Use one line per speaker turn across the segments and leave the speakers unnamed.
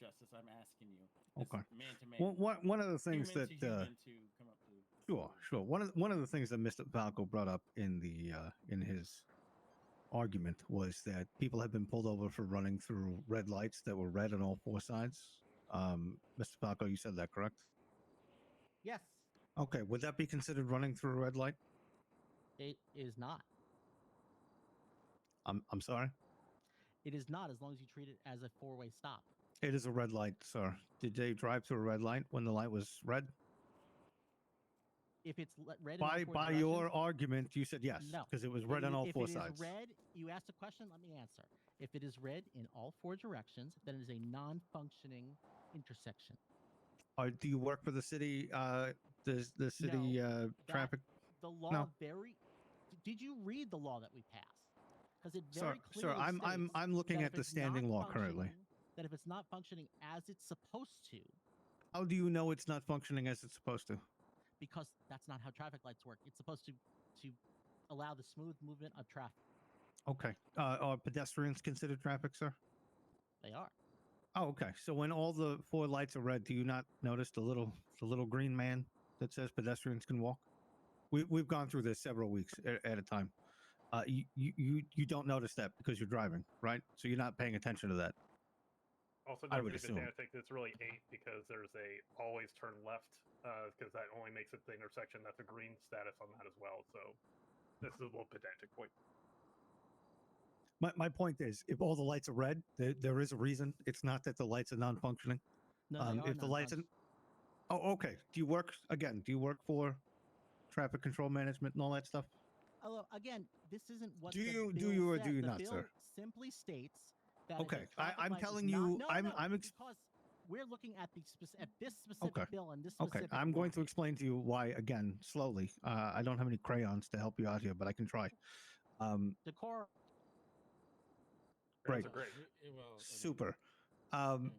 Justice. I'm asking you.
Okay.
Man to man.
Well, one one of the
human
things that
to
uh,
human to come up to.
Sure, sure. One of the, one of the things that Mr. Falco brought up in the uh, in his argument was that people have been pulled over for running through red lights that were red on all four sides. Um, Mr. Falco, you said that correct?
Yes,
Okay, would that be considered running through a red light?
it is not.
I'm I'm sorry.
It is not as long as you treat it as a four-way stop.
It is a red light, sir. Did they drive through a red light when the light was red?
If it's le- red, in all
By
four
by your
directions-
argument, you said yes
No.
because it was red
i-
on all
if
four
it is
sides.
red, you asked a question. Let me answer. If it is red in all four directions, then it is a non-functioning intersection.
Are, do you work for the city? Uh, the the city uh, traffic
The law very. d- Did you read the law that we passed? Because it
Sir,
very
sir,
clearly
I'm I'm
states
I'm looking
that
at
if
the
it's
standing
not
law currently.
functioning- That if it's not functioning as it's supposed to,
How do you know it's not functioning as it's supposed to?
because that's not how traffic lights work. It's supposed to to allow the smooth movement of traffic.
Okay. Uh, are pedestrians considered traffic, sir?
They are.
Oh, okay. So when all the four lights are red, do you not notice the little the little green man that says pedestrians can walk? We we've gone through this several weeks at, at a time. Uh, you, you you you don't notice that because you're driving, right? So you're not paying attention to that.
Also,
I
don't
would
leave it there.
assume.
I think it's really eight because there's a always turn left because that only makes it the intersection. That's a green status on that as well. So this is a little pedantic point.
My my point is, if all the lights are red, there, there is a reason. It's not that the lights are non-functioning.
No,
Um,
they are
if the lights
non-func-
Oh, okay. Do you work again? Do you work for traffic control management and all that stuff?
Um, Although again, this isn't what
Do
the
you- do
bill
you or
said.
do you
The
not,
bill
sir?
Simply states that. if a
Okay, I-
traffic
I'm
light is
telling
not-
you-
no,
I'm-
no,
I'm ex-
because we're looking at the spec- at this specific
Okay,
bill and this
Okay,
specific.
I'm going to
law.
explain to you why again slowly. Uh, I don't have any crayons to help you out here, but I can try. Um,
Decor.
Grants
Right.
are great.
Oh,
super. Um,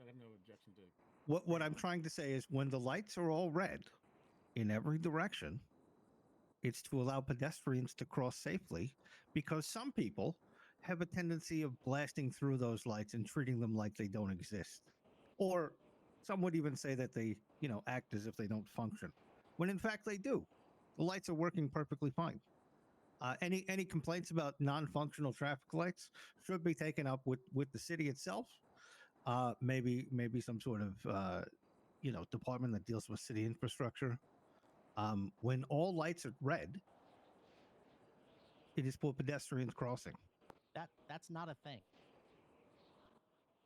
I have no objection to.
what what I'm trying to say is when the lights are all red in every direction, it's to allow pedestrians to cross safely because some people have a tendency of blasting through those lights and treating them like they don't exist. Or some would even say that they, you know, act as if they don't function. When in fact they do. The lights are working perfectly fine. Uh, any any complaints about non-functional traffic lights should be taken up with with the city itself uh maybe maybe some sort of uh you know department that deals with city infrastructure um when all lights are red it is for pedestrians crossing
That that's not a thing.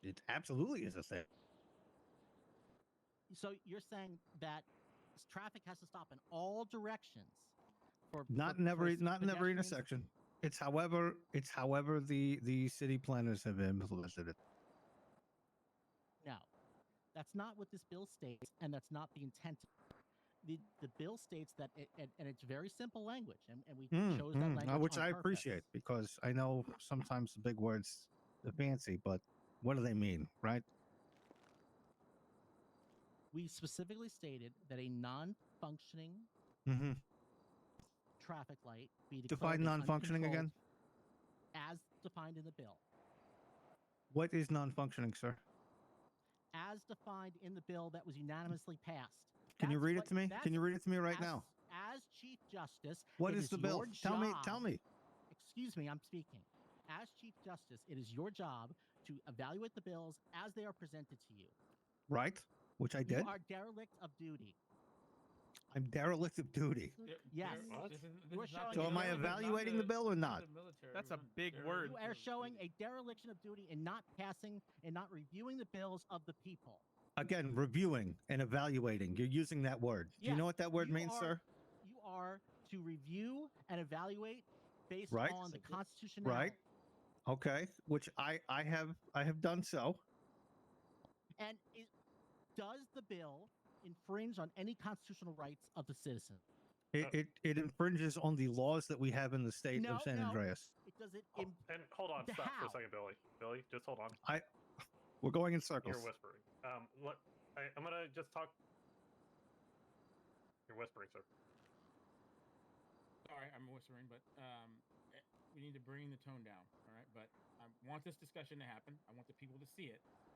it absolutely is a thing
So you're saying that s- traffic has to stop in all directions. For
not
for-
in
for
every
s-
not in every
pedestrians?
intersection it's however it's however the the city planners have implemented it
No, that's not what this bill states, and that's not the intent. The, the bill states that, it, and, and it's very simple language, and, and we
Mm,
chose that
mm, uh,
language,
which i
on purpose.
appreciate because i know sometimes the big words are fancy but what do they mean right
We specifically stated that a non-functioning
mm-hmm.
traffic light be declared
define
as
non-functioning again
uncontrolled as defined in the bill,
what is non-functioning sir
as defined in the bill that was unanimously passed.
Can you
That's
read
what-
it to me?
that's
Can you read it to me right
as-
now?
As Chief Justice,
What
it
is
is
the bill?
your
Tell me. Tell
job
me.
excuse me, I'm speaking. As Chief Justice, it is your job to evaluate the bills as they are presented to you.
Right? Which I did.
You are derelict of duty.
I'm derelict of duty.
Yes.
What?
We're showing
So am I
derelict of
evaluating the bill or not?
That's a big word.
You are showing a dereliction of duty in not passing and not reviewing the bills of the people.
Again, reviewing and evaluating. You're using that word. Do you
Yes,
know what that word
you
means,
are-
sir?
You are to review and evaluate based
Right.
on the constitution.
Right. Okay. Which I I have I have done so.
And it, does the bill infringe on any constitutional rights of the citizen?
It
Uh,
it, it infringes on the laws that we have in the state
No,
of San
no.
Andreas.
It does it.
Ho-
im-
and hold on,
the
stop for
how?
a second, Billy. Billy, just hold on.
We're going in circles.
You're whispering. Um, let, I, I'm gonna just talk. You're whispering, sir.
Sorry, I'm whispering, but um, eh, we need to bring the tone down. All right, but I want this discussion to happen. I want the people to see it.